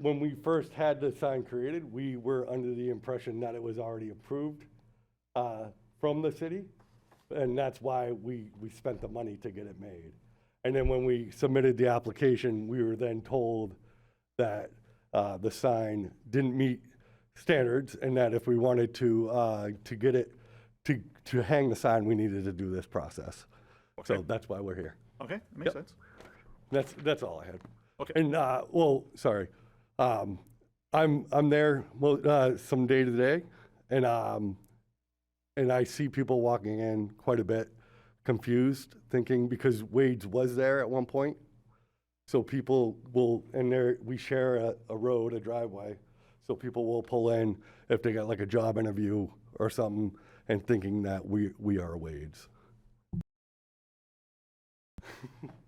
When we first had the sign created, we were under the impression that it was already approved uh, from the city, and that's why we, we spent the money to get it made. And then when we submitted the application, we were then told that uh, the sign didn't meet standards, and that if we wanted to, uh, to get it, to, to hang the sign, we needed to do this process. So Okay. that's why we're here. Okay, that makes sense. That's, that's all I had. Okay. And, uh, well, sorry. Um, I'm, I'm there, mo- uh, some day to day and, um, and I see people walking in quite a bit confused, thinking because Wade's was there at one point. So people will, and there, we share a, a road, a driveway. So people will pull in if they got like a job interview or something and thinking that we, we are Wade's.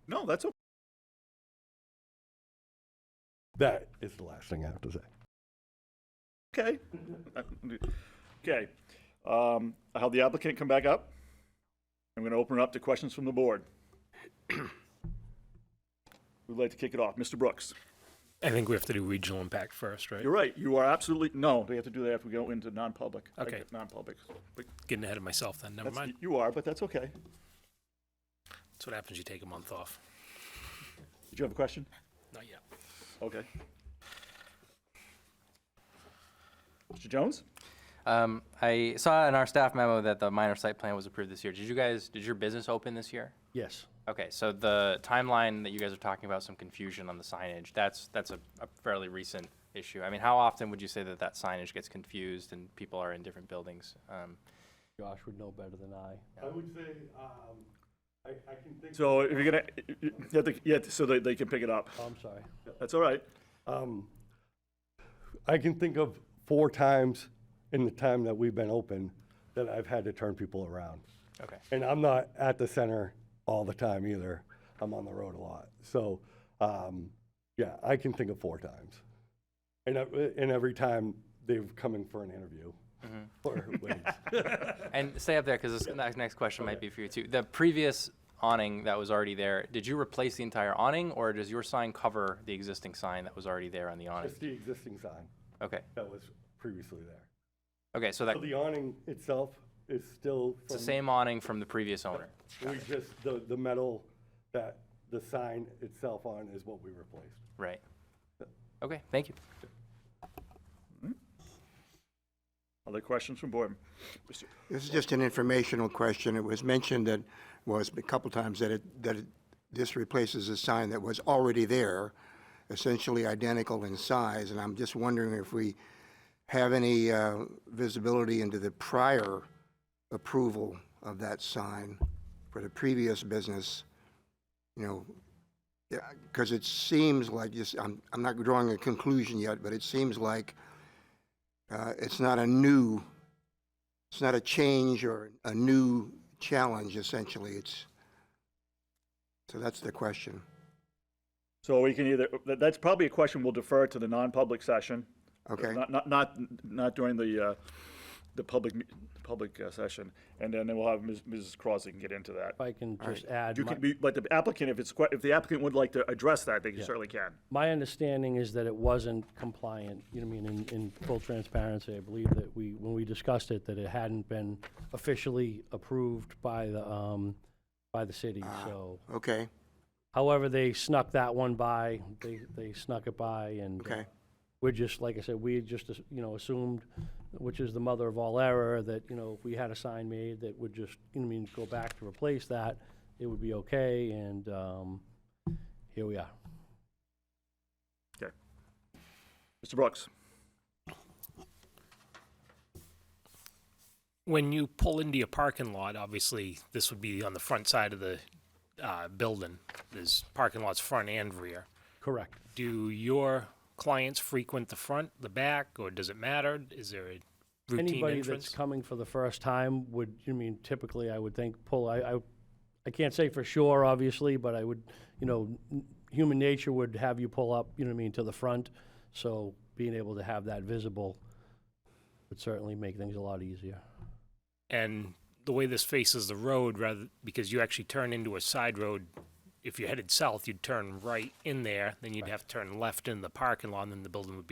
No, that's okay. That is the last thing I have to say. Okay. Okay. Um, I'll have the applicant come back up. I'm going to open it up to questions from the board. Who'd like to kick it off? Mr. Brooks? I think we have to do regional impact first, right? You're right. You are absolutely, no, we have to do that if we go into non-public. I Okay. get Non-public. But Getting ahead of myself then, never that's- mind. You are, but that's okay. That's what happens, you take a month off. Did you have a question? Not yet. Okay. Mr. Jones? Um, I saw in our staff memo that the minor site plan was approved this year. Did you guys, did your business open this year? Yes. Okay, so the timeline that you guys are talking about, some confusion on the signage, that's, that's a a fairly recent issue. I mean, how often would you say that that signage gets confused and people are in different buildings? Um, Josh would know better than I. I would say, um, I, I can think. So if you're going to, you have to, you have to- so they, they can pick it up. Oh, I'm sorry. That's all right. Um, I can think of four times in the time that we've been open that I've had to turn people around. Okay. And I'm not at the center all the time either. I'm on the road a lot. So, um, yeah, I can think of four times. And, I- and every time they've come in for an interview Mm-hmm. or waits. And stay up there, because this next, next question might be for you too. The previous awning that was already there, did you replace the entire awning, or does your sign cover the existing sign that was already there on the awning? It's the existing sign Okay, that was previously there. okay, so that, So the awning itself is still. it's the from- same awning from the previous owner? We just, the, the metal that the sign itself on is what we replaced. Right. Okay, thank you. Other questions from board? Mr. This is just an informational question. It was mentioned that, was a couple times, that it, that it, this replaces a sign that was already there, essentially identical in size, and I'm just wondering if we have any uh, visibility into the prior approval of that sign for the previous business, you know, because it seems like, just, I'm, I'm not drawing a conclusion yet, but it seems like uh, it's not a new it's not a change or a new challenge, essentially. It's, so that's the question. So we can either, that- that's probably a question we'll defer to the non-public session. Okay. Not, not, not, not during the, uh, the public, me- public uh, session. And then we'll have Ms. Mrs. Crosby can get into that. If I can just add, You my- can be, but the applicant, if it's, que- if the applicant would like to address that, they certainly can. my understanding is that it wasn't compliant, you know, what I mean, in, in full transparency, I believe that we, when we discussed it, that it hadn't been officially approved by the, um, by the city, Ah. so. Okay, However, they snuck that one by, they, they snuck it by, and. okay. we're just, like I said, we had just, as- you know, assumed, which is the mother of all error, that, you know, if we had a sign made that would just, you know, I mean, go back to replace that, it would be okay, and, um, here we are. Okay. Mr. Brooks? When you pull into your parking lot, obviously, this would be on the front side of the uh, building. There's parking lots front and rear. Correct. Do your clients frequent the front, the back, or does it matter? Is there a routine Anybody that's entrance? coming for the first time would, you know, I mean, typically, I would think, pull, I, I, I can't say for sure, obviously, but I would, you know, n- human nature would have you pull up, you know what I mean, to the front, so being able to have that visible would certainly make things a lot easier. And the way this faces the road, rather, because you actually turn into a side road if you headed south, you'd turn right in there, then you'd have to turn left in the parking lot, and then the building would be